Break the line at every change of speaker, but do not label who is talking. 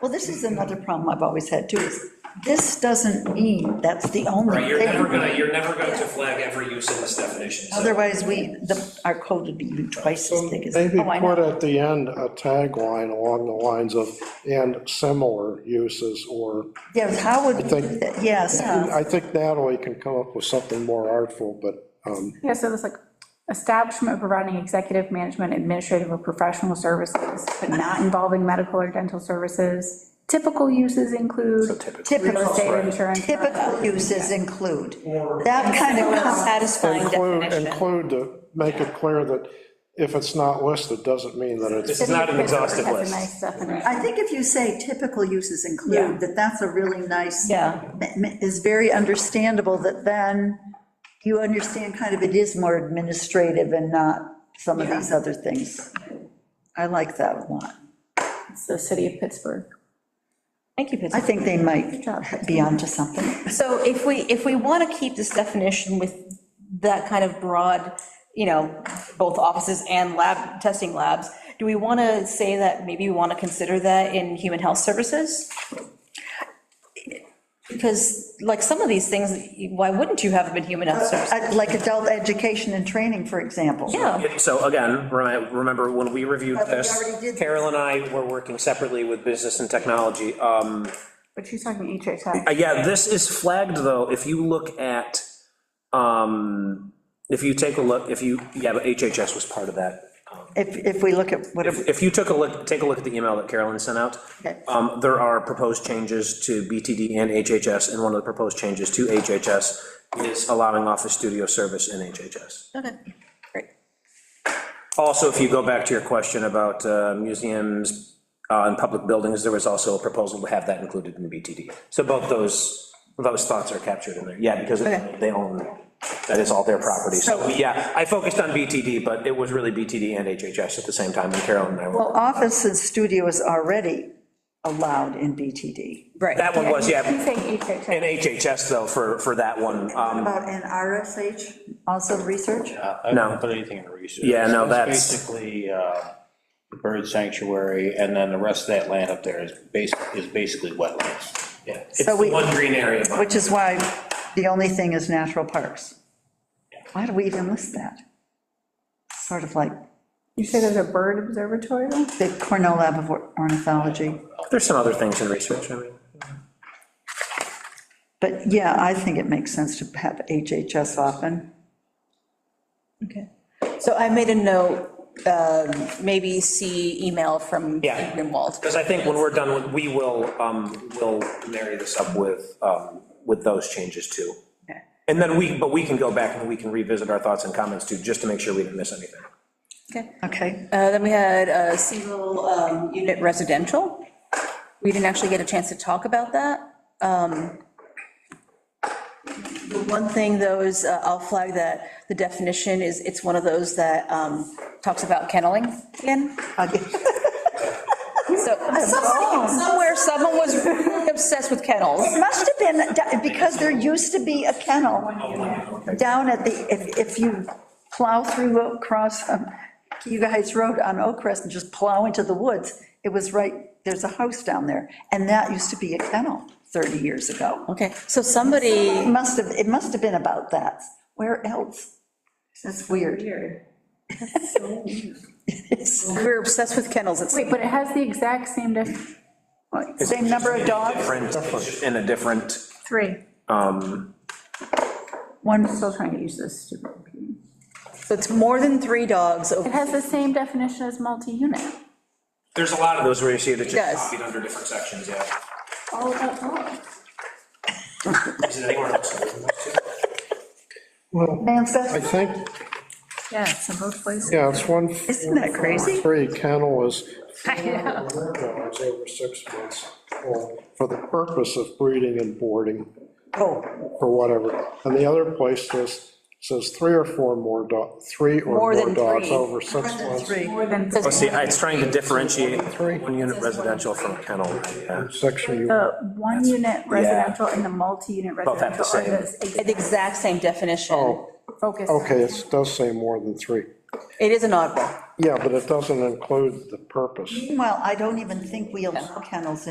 Well, this is another problem I've always had too, is this doesn't mean that's the only
Right, you're never
thing.
gonna, you're never going to flag every use in this definition. so-
Otherwise, we, the, our code would be even twice as thick as.
Maybe
Oh, I know.
put at the end a tagline along the lines of, and similar uses, or,
Yes, how would,
I think-
yes,
I think Natalie can come up with something more artful, but, um,
Yeah, so it's like establishment providing executive management, administrative or professional services, but not involving medical or dental services. Typical uses include real
typical,
estate insurance.
typical uses include, that kind of,
satisfying
include,
definition.
include to make it clear that if it's not listed, doesn't mean that it's,
This is not an exhaustive
That's a
list.
nice definition.
I think if you say typical uses include, that that's a really nice.
Yeah.
m- m- Is very understandable that then you understand kind of it is more administrative and not some of these other things. I like that a lot.
It's the city of Pittsburgh.
Thank you, Pittsburgh.
I think they might be onto something.
So if we, if we want to keep this definition with that kind of broad, you know, both offices and lab, testing labs, do we want to say that maybe we want to consider that in human health services? Because like some of these things, why wouldn't you have them in human health services?
Uh, Like adult education and training, for example.
Yeah,
So again, remi- remember when we reviewed
Oh. But we
this,
already did that.
Carol and I were working separately with business and technology. Um,
But she's talking HHS.
uh, Yeah, this is flagged, though, if you look at, um, if you take a look, if you, yeah, but HHS was part of that.
If, if we look at whatever,
If if you took a look, take a look at the email that Carolyn sent out,
Okay.
um, there are proposed changes to BTD and HHS, and one of the proposed changes to HHS is allowing Office Studio service in HHS.
okay, great.
Also, if you go back to your question about uh, museums uh, and public buildings, there was also a proposal to have that included in BTD. So both those, those thoughts are captured in there, yeah, because they own, that is all their property. So, yeah, I focused on BTD, but it was really BTD and HHS at the same time, and Carolyn and I were.
well, office and studio is already allowed in BTD.
That one was,
She's
yeah,
saying HHS.
and HHS though, for, for that one, um,
About an RSH, also research?
I
No.
don't put anything in research.
Yeah, no,
It's
that's-
Basically, uh, bird sanctuary, and then the rest of that land up there is bas, is basically wetlands.
Yeah, It's
So
the
we-
one green area. behind.
Which is why the only thing is natural parks. Why do we even list that? Sort of like
You say there's a bird observatory though?
the Cornell Lab of Ornithology.
there's some other things in research, I mean.
But yeah, I think it makes sense to have HHS often.
Okay. So I made a note, um, maybe see email from
Yeah.
Greenwald.
Because I think when we're done, with- we will, um, we'll marry this up with, um, with those changes too. And then we, but we can go back and we can revisit our thoughts and comments too, just to make sure we didn't miss anything.
Okay.
Okay,
Uh, Then we had uh, single um, unit residential. We didn't actually get a chance to talk about that. Um, The one thing, though, is uh, I'll flag that the definition is, it's one of those that um, talks about kenneling again. So somewhere, someone was obsessed with kennels.
must have been, da- because there used to be a kennel down at the, if, if you plow through across um, you guys Road on Oak Crest and just plow into the woods, it was right, there's a house down there, and that used to be a kennel 30 years ago.
Okay, so somebody.
It must have, it must have been about that. Where else? That's weird. It's-
We were obsessed with kennels, it's,
Wait, but it has the exact same def,
Same number of dogs,
Different, in a different,
three.
um,
one,
Still trying to use this stupid computer.
so it's more than three dogs,
It
over-
has the same definition as multi-unit.
there's a lot of those where you see that
Yes.
just copied under different sections, yeah.
All about dogs.
Is it anywhere else?
well,
man's
I
best,
think,
Yeah, it's in both places.
yeah, it's one,
isn't that crazy?
three kennel is
I know.
four dogs over six months old for the purpose of breeding and boarding.
Oh,
or whatever. And the other place says, says three or four more dog, three or more
than
dogs
three.
over six months.
three.
More than
Oh, see, it's trying to differentiate one unit residential from a kennel, yeah.
Section you.
The one-unit residential and the multi-unit
Both have the
residential are the
the exact same definition.
Oh,
focus.
okay, it does say more than three.
It is an oddball.
Yeah, but it doesn't include the purpose.
Well, I don't even think we allow kennels in